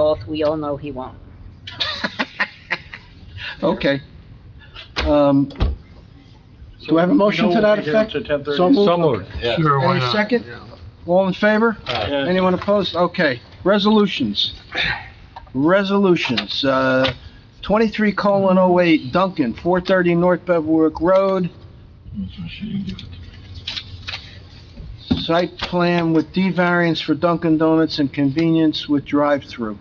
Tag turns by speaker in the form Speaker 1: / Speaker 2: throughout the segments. Speaker 1: mouth, we all know he won't.
Speaker 2: Okay. Um, Do I have a motion to that effect? So moved.
Speaker 3: So moved.
Speaker 4: Yeah.
Speaker 3: Sure, why
Speaker 2: Any
Speaker 3: not?
Speaker 2: second? All in favor?
Speaker 3: Yeah.
Speaker 2: Anyone opposed? Okay, resolutions. Resolutions, uh, twenty-three colon oh eight Duncan, four thirty North Bevwick Road. Site plan with D variance for Dunkin' Donuts and convenience with drive-through,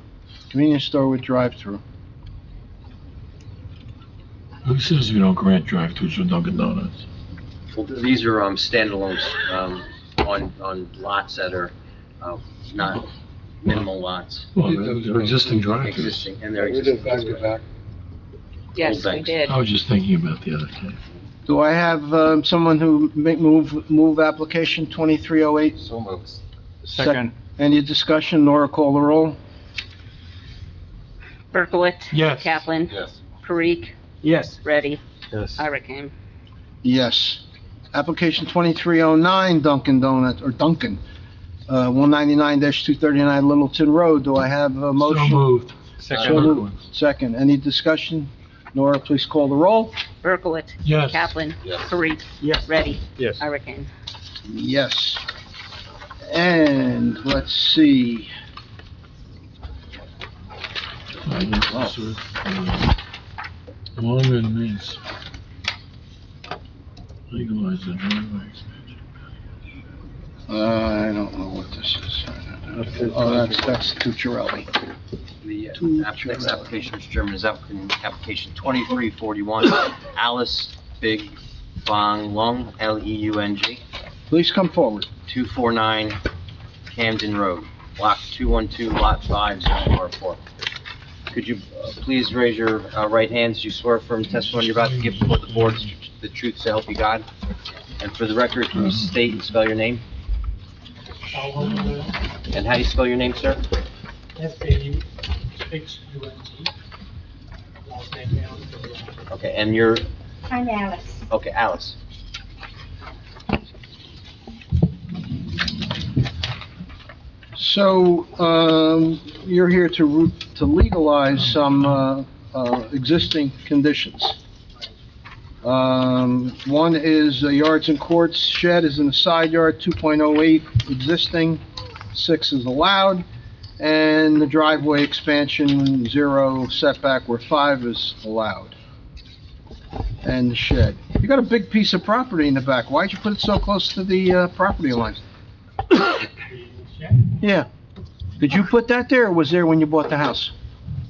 Speaker 2: convenience store with drive-through.
Speaker 5: Who says we don't grant drive-throughs for Dunkin' Donuts?
Speaker 4: Well, These are um, standalones um, on, on lots that are uh, not minimal lots,
Speaker 5: Well, they're- they're existing drive-throughs.
Speaker 4: existing, and they're existing.
Speaker 1: Yes, we
Speaker 4: thanks.
Speaker 1: did.
Speaker 5: I
Speaker 3: Oh.
Speaker 5: was just thinking about the other thing.
Speaker 2: Do I have, um, someone who make move, move application twenty-three oh eight?
Speaker 4: So moved.
Speaker 3: Second,
Speaker 2: Any discussion? Nora, call the roll.
Speaker 1: Berkowitz.
Speaker 3: Yes.
Speaker 1: Kaplan.
Speaker 4: Yes.
Speaker 1: Parikh.
Speaker 3: yes.
Speaker 1: Ready.
Speaker 3: Yes.
Speaker 1: Irakim.
Speaker 2: Yes. Application 2309 Dunkin' Donut, or Dunkin', uh, 199-239 Littleton Road. Do I have a
Speaker 5: So
Speaker 2: motion?
Speaker 5: moved.
Speaker 2: So
Speaker 3: Second,
Speaker 2: moved. Second. Any discussion? Nora, please call the roll.
Speaker 1: Berkowitz.
Speaker 5: Yes.
Speaker 1: Kaplan.
Speaker 4: Yes.
Speaker 1: Parikh.
Speaker 3: yes.
Speaker 1: Ready.
Speaker 3: Yes.
Speaker 1: Irakim.
Speaker 2: Yes. And let's see.
Speaker 5: I didn't consider it, uh, Longer than these. Legalize the driveway.
Speaker 2: Uh, I don't know what this is. Oh, that's, that's Tucciarelli.
Speaker 4: The
Speaker 2: Two
Speaker 4: uh, app- next
Speaker 2: children.
Speaker 4: application, Mr. Chairman, is applicant, application 2341, Alice Big Bong Lung, E L-E-U-N-G,
Speaker 2: Please come forward.
Speaker 4: 249 Camden Road, Block 212, Lot 5, Zone R4. Could you uh, please raise your uh, right hands? You swear firm testimony you're about to give before the board is the truth so help you God? And for the record, can you state and spell your name? And how do you spell your name, sir?
Speaker 6: S-A-U-X-U-N-T. Last name Allen.
Speaker 4: Okay, and you're,
Speaker 7: I'm Alice.
Speaker 4: okay, Alice.
Speaker 2: So, um, you're here to, ru- to legalize some, uh, uh, existing conditions. Um, one is the yards and courts shed is in the side yard, two point oh eight existing, six is allowed. And the driveway expansion, zero setback where five is allowed. And the shed. You got a big piece of property in the back. Why'd you put it so close to the, uh, property line?
Speaker 6: Yeah,
Speaker 2: Yeah. Did you put that there, or was there when you bought the house?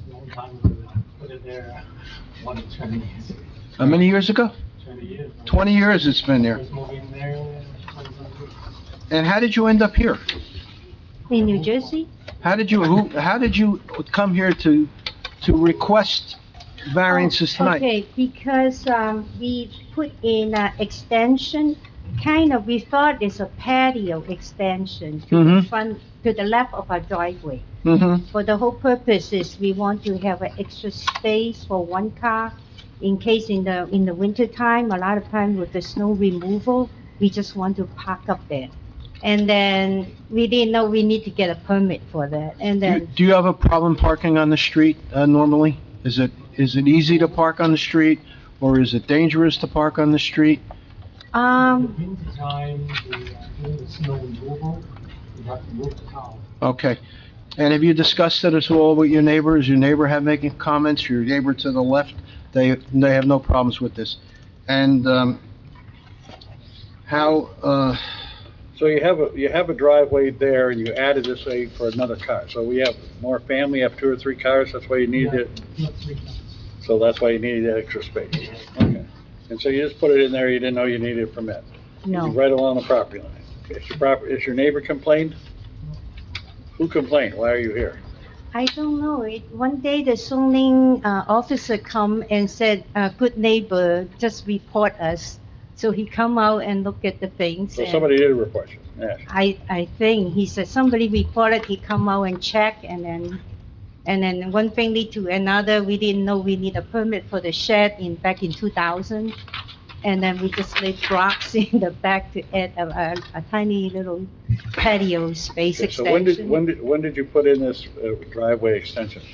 Speaker 6: long time ago, put it there, one to twenty years,
Speaker 2: How many years ago?
Speaker 6: twenty years.
Speaker 2: Twenty years it's been there.
Speaker 6: Was moving there, uh, 20.
Speaker 2: And how did you end up here?
Speaker 7: In New Jersey?
Speaker 2: How did you, who, how did you come here to, to request variances tonight?
Speaker 7: Oh, Okay, because, um, we put in a extension, kind of, we thought it's a patio extension to the
Speaker 2: Mhm.
Speaker 7: front, to the left of our driveway.
Speaker 2: Mm-hmm,
Speaker 7: For the whole purpose is we want to have an extra space for one car in case in the, in the winter time, a lot of time with the snow removal, we just want to park up there. And then we didn't know we need to get a permit for that, and then.
Speaker 2: Do you have a problem parking on the street, uh, normally? Is it, is it easy to park on the street, or is it dangerous to park on the street?
Speaker 7: Um,
Speaker 6: In the time, we are doing the snow removal, we have to move the car.
Speaker 2: Okay. And have you discussed it at all with your neighbor? Is your neighbor have making comments? Your neighbor to the left, they, they have no problems with this. And, um, how, uh,
Speaker 8: So you have a, you have a driveway there and you added this way for another car. So we have more family, have two or three cars, that's why you needed it.
Speaker 6: Not three times.
Speaker 8: So that's why you needed that extra space. Okay. And so you just put it in there, you didn't know you needed a permit.
Speaker 7: no.
Speaker 8: It's Right along the property line. Is your prop, is your neighbor complained? Who complained? Why are you here?
Speaker 7: I don't know. It, one day the zoning uh, officer come and said, uh, good neighbor, just report us. So he come out and look at the things.
Speaker 8: So
Speaker 7: and
Speaker 8: somebody did report you, yeah.
Speaker 7: I, I think, he said somebody reported, he come out and check and then, and then one thing lead to another. We didn't know we need a permit for the shed in, back in two thousand. And then we just laid rocks in the back to add a, a- a tiny little patio space
Speaker 8: So when did, when
Speaker 7: extension.
Speaker 8: did, when did you put in this uh, driveway extension?